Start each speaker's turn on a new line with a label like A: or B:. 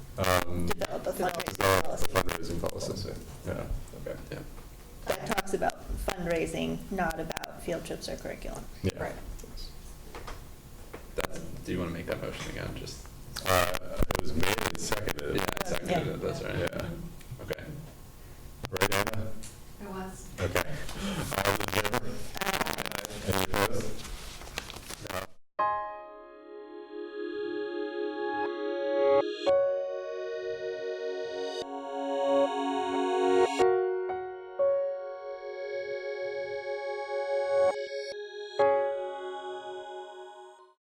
A: It's
B: Fundraising
A: our
B: policy.
A: Um, fundraising policy, yeah.
C: Okay.
A: Yeah.
B: That talks about fundraising, not about field trips or curriculum.
A: Yeah.
C: Right. That's, do you want to make that motion again, just?
A: Uh, It was made and seconded.
C: Yeah, I seconded it, that's right.
A: Yeah.
C: Okay.
A: Right, Anna? Uh,
D: It was.
A: Okay. All those in
B: Uh,